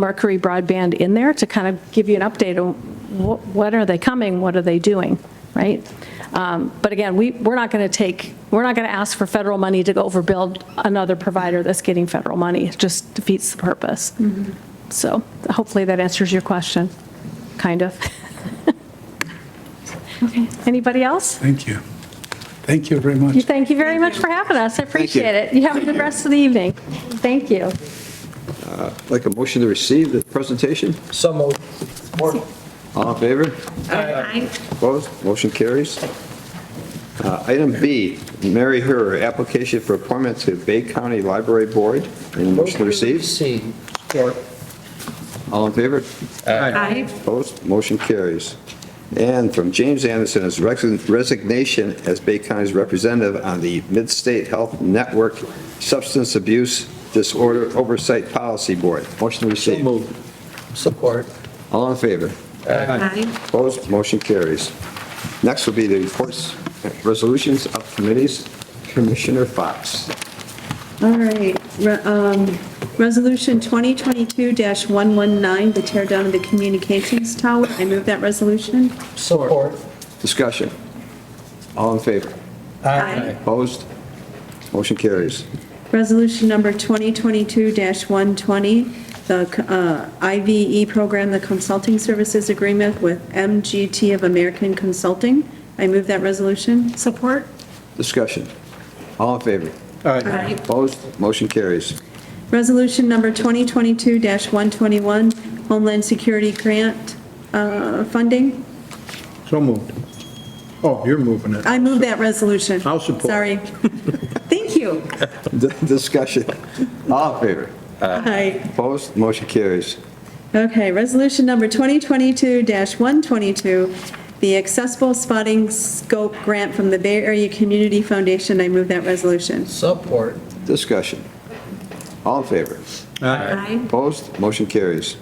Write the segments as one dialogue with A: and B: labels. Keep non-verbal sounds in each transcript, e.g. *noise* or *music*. A: Mercury Broadband in there to kind of give you an update on wh- when are they coming, what are they doing, right? Um, But again, we, we're not going to take, we're not going to ask for federal money to go overbuild another provider that's getting federal money. It just defeats the purpose. So hopefully that answers your question, kind *laughs* of.
B: Okay.
A: Anybody else?
C: Thank you. Thank you very much.
A: Thank you very much for having us. I appreciate it. You have a good rest of the evening. Thank you.
D: Like a motion to receive the presentation?
E: So moved.
D: All in favor?
B: Aye.
D: Opposed? Motion carries. Uh, Item B, Mary Herr, application for appointment to Bay County Library Board. Any motion to receive?
E: Receive.
D: All in favor?
B: Aye.
D: Opposed? Motion carries. And from James Anderson, his resignation as Bay County's representative on the Mid-State Health Network Substance Abuse Disorder Oversight Policy Board. Motion to
E: So
D: receive.
E: moved. Support.
D: All in favor?
B: Aye.
D: Opposed, motion carries. Next will be the reports, resolutions of committees. Commissioner Fox.
F: All right, Re- um, Resolution 2022-119, the tear down of the communications tower. I move that resolution.
E: Support.
D: Discussion. All in favor?
F: Aye.
D: Opposed? Motion carries.
F: Resolution number 2022-120, the uh, IVE program, the consulting services agreement with MGT of American Consulting. I move that resolution.
B: Support?
D: Discussion. All in favor?
B: Aye.
D: Opposed? Motion carries.
F: Resolution number 2022-121, Homeland Security Grant uh, funding.
G: So moved. Oh, you're moving it.
F: I move that resolution.
G: I'll support.
F: Sorry. Thank you.
D: D- Discussion. All in favor?
F: Aye.
D: Opposed? Motion carries.
F: Okay, resolution number 2022-122, the accessible spotting scope grant from the Bay Area Community Foundation. I move that resolution.
E: Support.
D: Discussion. All in favor?
B: Aye.
D: Opposed? Motion carries.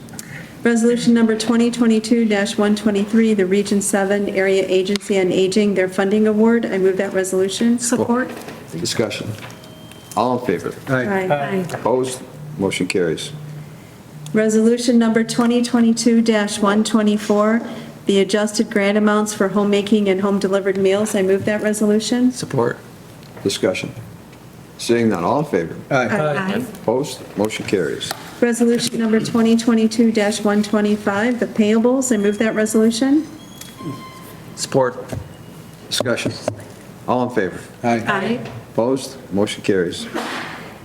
F: Resolution number 2022-123, the Region 7 Area Agency on Aging, their funding award. I move that resolution.
B: Support?
D: Discussion. All in favor?
F: Aye.
B: Aye.
D: Opposed? Motion carries.
F: Resolution number 2022-124, the adjusted grant amounts for homemaking and home-delivered meals. I move that resolution.
E: Support.
D: Discussion. Seeing none, all in favor?
B: Aye.
D: Opposed? Motion carries.
F: Resolution number 2022-125, the payables, I move that resolution.
E: Support.
D: Discussion. All in favor?
B: Aye.
D: Opposed? Motion carries.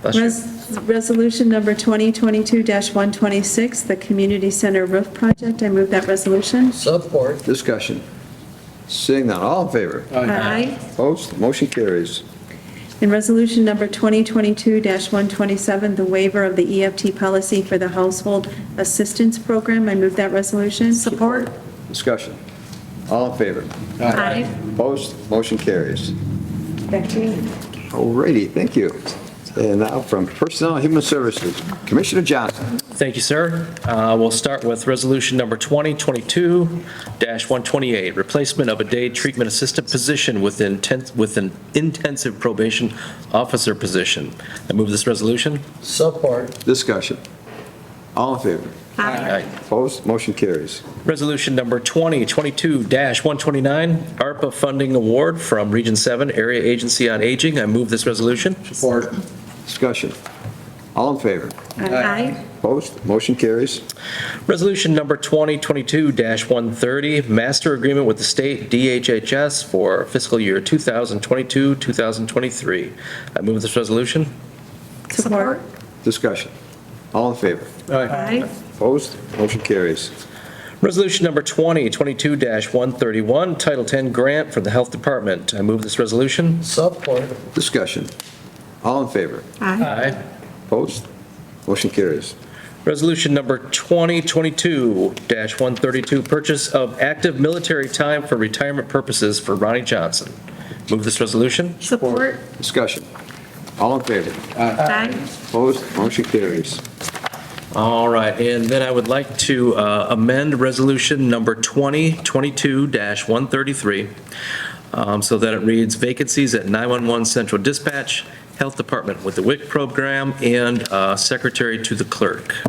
E: Bless you.
F: Res- Resolution number 2022-126, the community center roof project, I move that resolution.
E: Support.
D: Discussion. Seeing none, all in favor?
B: Aye.
D: Opposed? Motion carries.
F: And resolution number 2022-127, the waiver of the EFT policy for the household assistance program, I move that resolution.
B: Support?
D: Discussion. All in favor?
B: Aye.
D: Opposed? Motion carries.
F: Back to you.
D: Alrighty, thank you. And now from Personnel and Human Services, Commissioner Johnson.
H: Thank you, sir. Uh, We'll start with Resolution Number 2022-128, replacement of a day treatment assistant position with inten- with an intensive probation officer position. I move this resolution.
E: Support.
D: Discussion. All in favor?
B: Aye.
D: Opposed? Motion carries.
H: Resolution Number 2022-129, ARPA funding award from Region 7 Area Agency on Aging. I move this resolution.
E: Support.
D: Discussion. All in favor?
B: Aye.
D: Opposed? Motion carries.
H: Resolution number 2022-130, master agreement with the state DHHS for fiscal year 2022, 2023. I move this resolution.
F: Support.
D: Discussion. All in favor?
B: Aye.
D: Opposed? Motion carries.
H: Resolution number 2022-131, Title 10 grant for the Health Department. I move this resolution.
E: Support.
D: Discussion. All in favor?
B: Aye.
H: Aye.
D: Opposed? Motion carries.
H: Resolution number 2022-132, purchase of active military time for retirement purposes for Ronnie Johnson. Move this resolution.
B: Support?
D: Discussion. All in favor?
B: Aye.
D: Opposed? Motion carries.
H: All right, and then I would like to uh, amend Resolution Number 2022-133, um, so that it reads vacancies at 911 Central Dispatch, Health Department with the WIC program, and uh, Secretary to the Clerk.